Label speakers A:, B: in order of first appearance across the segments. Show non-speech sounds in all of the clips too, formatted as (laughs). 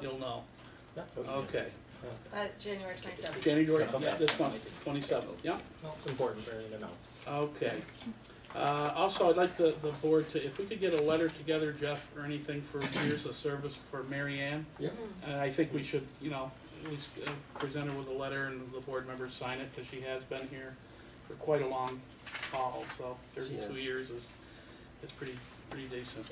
A: You'll know.
B: Yeah.
A: Okay.
C: Uh, January twenty-seventh.
A: January,
B: Okay.
A: yeah, this month, twenty-seventh, yeah,
B: Well, it's important for you to know.
A: okay. Uh, also, I'd like the, the board to, if we could get a letter together, Jeff, or anything for years of service for Mary Ann.
B: Yeah.
A: And I think we should, you know, at least uh, present her with a letter and the board members sign it, because she has been here for quite a long haul, so
D: She has.
A: thirty-two years is, is pretty, pretty decent.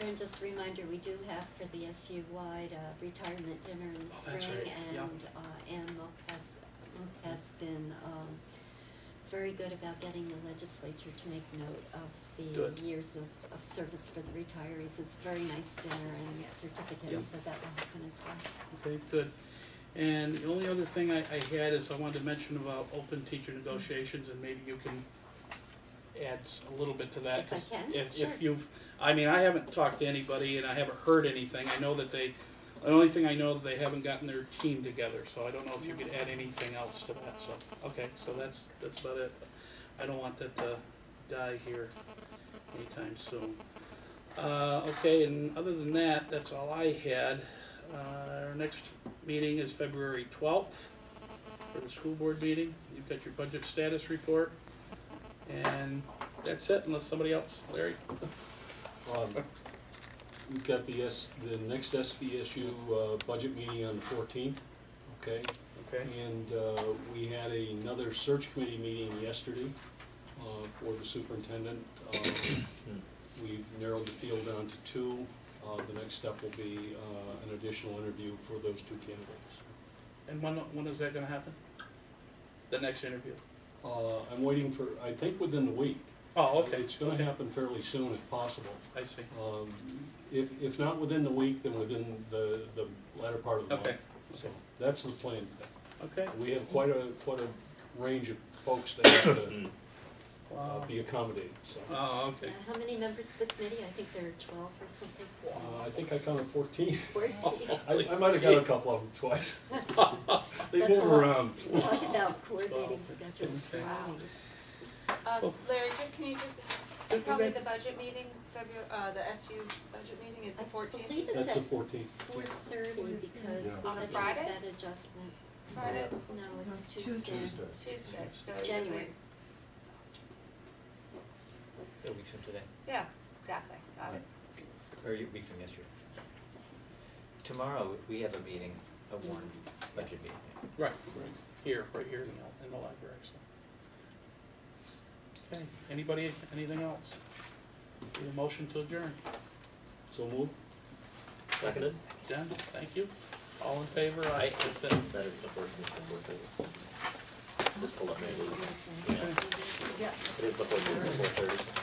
E: And just a reminder, we do have for the SU-wide uh, retirement dinner in the
A: Oh,
E: spring.
A: that's right, yeah.
E: And uh, Ann Moak has, Moak has been um, very good about getting the legislature to make note of
A: Good.
E: the years of, of service for the retirees. It's a very nice dinner and certificates, so that will happen as well.
A: Okay, good. And the only other thing I, I had is I wanted to mention about open teacher negotiations, and maybe you can add s- a little bit to that.
E: If I
A: 'cause
E: can,
A: If,
E: sure.
A: if you've, I mean, I haven't talked to anybody and I haven't heard anything, I know that they, the only thing I know, that they haven't gotten their team together, so I don't know if you could add anything else to that, so, okay, so that's, that's about it. I don't want that to die here anytime soon. Uh, okay, and other than that, that's all I had. Uh, our next meeting is February twelfth for the school board meeting. You've got your budget status report. And that's it, unless somebody else, Larry?
F: Um, We've got the S, the next SBSU uh, budget meeting on the fourteenth, okay?
A: Okay.
F: And uh, we had another search committee meeting yesterday uh, for the superintendent. Um,
A: Hmm.
F: We've narrowed the field down to two. Uh, The next step will be uh, an additional interview for those two candidates.
A: And when, when is that gonna happen? The next interview?
F: Uh, I'm waiting for, I think within the week.
A: Oh, okay,
F: It's gonna happen fairly soon if possible.
A: I see.
F: Um, If, if not within the week, then within the, the latter part of the month.
A: Okay.
F: So that's the plan.
A: Okay.
F: We have quite a, quite a range of folks that have to uh,
A: Wow.
F: be accommodated, so. Uh,
A: Oh,
E: Uh,
A: okay.
E: How many members of the committee? I think there are twelve or something.
F: Uh, I think I counted fourteen. (laughs)
A: (laughs)
E: Fourteen.
F: I, I might have got a couple of them twice. They
E: That's
F: move
E: a lot.
F: around.
E: Talk
A: (laughs)
E: about coordinating schedules for
A: uh, Okay.
E: meetings.
C: Um, Larry, just, can you just tell me the budget meeting, February, uh, the SU budget meeting is the
E: I believe
C: fourteenth?
E: it's
F: That's the
E: at
F: fourteenth.
E: four thirty because we
C: On a
E: had to make
C: Friday?
E: that adjustment.
C: Friday,
E: No, it's
G: Tuesday.
E: Tuesday.
C: Tuesday, so.
E: January.
D: A week from today,
C: Yeah, exactly, got it.
D: or a week from yesterday. Tomorrow, we have a meeting, a warrant budget meeting.
A: Right, right, here, right here in the, in the library, so. Okay, anybody, anything else? Need a motion to adjourn?
F: So move.
D: Seconded?
A: Done, thank you. All in favor? Aye. That's it.
D: That is the board, that's the board thirty. Just pulled up my lead.
E: Tuesday.
D: It is the board meeting at four thirty.